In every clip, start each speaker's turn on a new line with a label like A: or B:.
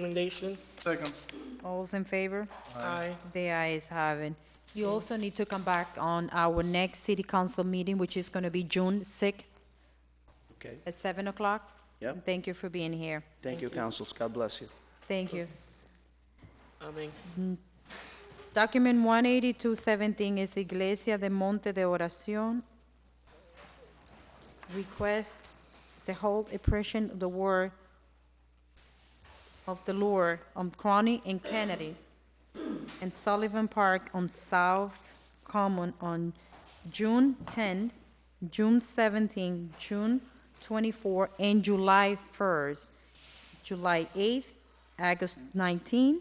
A: Recommendation?
B: Second.
C: All's in favor?
A: Aye.
C: The ayes have it. You also need to come back on our next city council meeting, which is going to be June 6th
D: Okay,
C: at 7 o'clock.
D: Yep.
C: Thank you for being here.
D: thank you, councils, God bless you.
C: Thank you.
A: I mean,
C: Document 18217 is Iglesia de Monte de Oración. Request the whole oppression of the war of the Lord on Crony and Kennedy and Sullivan Park on South Common on June 10, June 17, June 24, and July 1st, July 8th, August 19,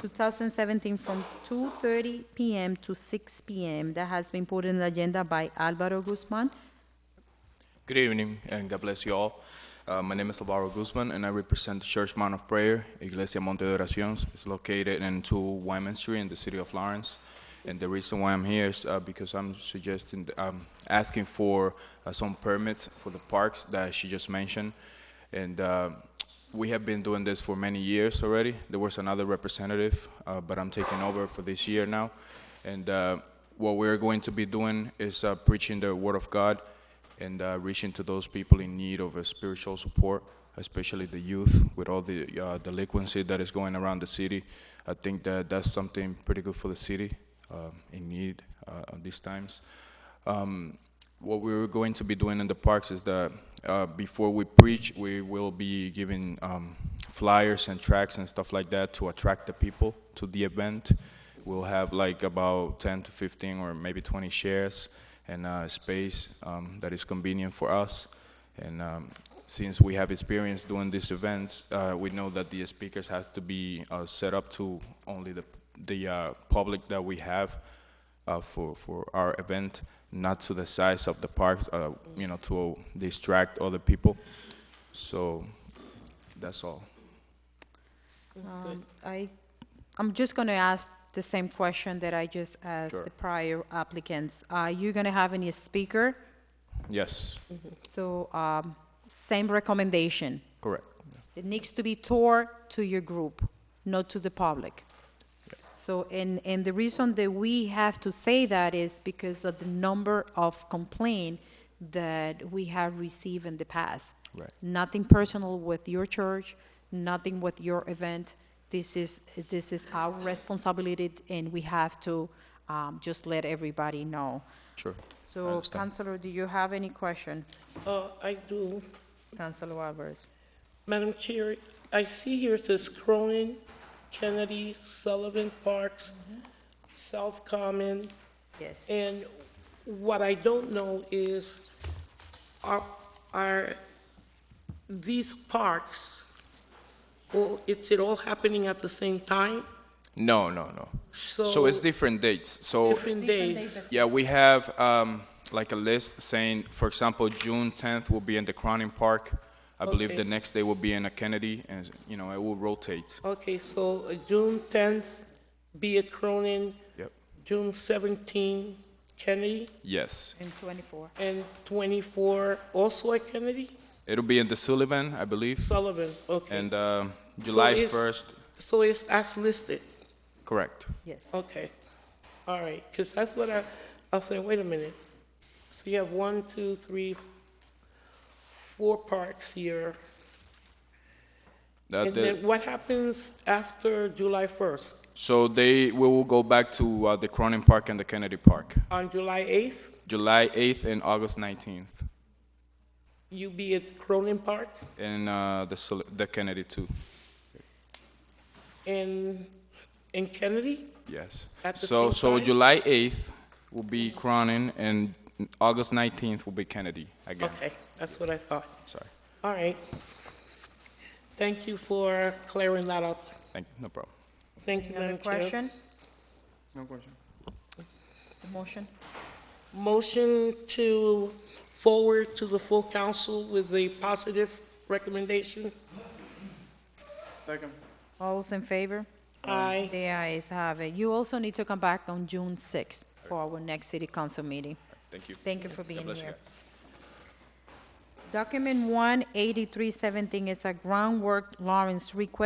C: 2017 from 2:30 PM to 6 PM. That has been put in the agenda by Alvaro Guzman.
E: Good evening and God bless you all. Uh, my name is Alvaro Guzman and I represent the Church Mount of Prayer, Iglesia Monte de Oraciones. It's located in 2 Wyman Street in the city of Lawrence. And the reason why I'm here is uh, because I'm suggesting, um, asking for uh, some permits for the parks that she just mentioned. And uh, we have been doing this for many years already. There was another representative, uh, but I'm taking over for this year now. And uh, what we're going to be doing is uh, preaching the Word of God and uh, reaching to those people in need of a spiritual support, especially the youth with all the uh, delinquency that is going around the city. I think that that's something pretty good for the city uh, in need uh, at these times. Um, what we're going to be doing in the parks is that uh, before we preach, we will be giving um, flyers and tracks and stuff like that to attract the people to the event. We'll have like about 10 to 15 or maybe 20 shares and uh, space um, that is convenient for us. And um, since we have experience doing these events, uh, we know that the speakers have to be uh, set up to only the, the uh, public that we have uh, for for our event, not to the size of the park, uh, you know, to distract other people. So that's all.
C: Um, I, I'm just going to ask the same question that I just asked
E: Sure.
C: the prior applicants. Are you going to have any speaker?
E: Yes,
C: So um, same recommendation.
E: correct.
C: It needs to be tore to your group, not to the public. So, and, and the reason that we have to say that is because of the number of complaint that we have received in the past.
E: Right.
C: Nothing personal with your church, nothing with your event. This is, this is our responsibility, and we have to um, just let everybody know.
E: Sure. I
C: So,
E: understand.
C: Counselor, do you have any question?
A: uh, I do.
C: Counselor Alvarez?
A: Madam Chair, I see here it says Cronin, Kennedy, Sullivan Parks, South Common,
C: Yes.
A: and what I don't know is, are, are these parks, or is it all happening at the same time?
E: No, no, no. So,
A: So-
E: it's different dates. So
A: Different days?
E: Yeah, we have um, like a list saying, for example, June 10th will be in the Cronin Park. I believe
A: Okay.
E: the next day will be in a Kennedy, and you know it will rotate.
A: Okay, so uh, June tenth, be at Cronin,
E: Yep.
A: June seventeenth, Kennedy,
E: Yes,
C: In 24.
A: and twenty-four also at Kennedy?
E: it'll be in the Sullivan, I believe,
A: Sullivan, okay.
E: and um
A: So
E: July
A: it's-
E: 1st.
A: So it's, that's listed,
E: Correct.
C: Yes.
A: okay. All right, because that's what I, I was saying, wait a minute. So you have one, two, three, four parks here.
E: That-
A: And
E: that-
A: then what happens after July first?
E: so they we will go back to uh, the Cronin Park and the Kennedy Park,
A: On July eighth,
E: July 8th and August 19th,
A: you be at Cronin Park,
E: and uh, the Sul- the Kennedy too.
A: and, and Kennedy?
E: Yes.
A: At the
E: so
A: same
E: so
A: time?
E: July 8th will be Cronin, and August 19th will be Kennedy again.
A: Okay, that's what I thought.
E: Sorry.
A: All right. Thank you for clearing that up.
E: Thank you. No problem.
A: Thank you,
C: Any other
A: Madam Chair.
C: question?
B: No question.
C: The motion?
A: Motion to forward to the full council with a positive recommendation.
B: Second.
C: All's in favor?
A: Aye.
C: The ayes have it. You also need to come back on June 6th for our next city council meeting.
E: Thank you.
C: Thank you for being
E: bless you.
C: here. Document 18317 is a groundwork Lawrence request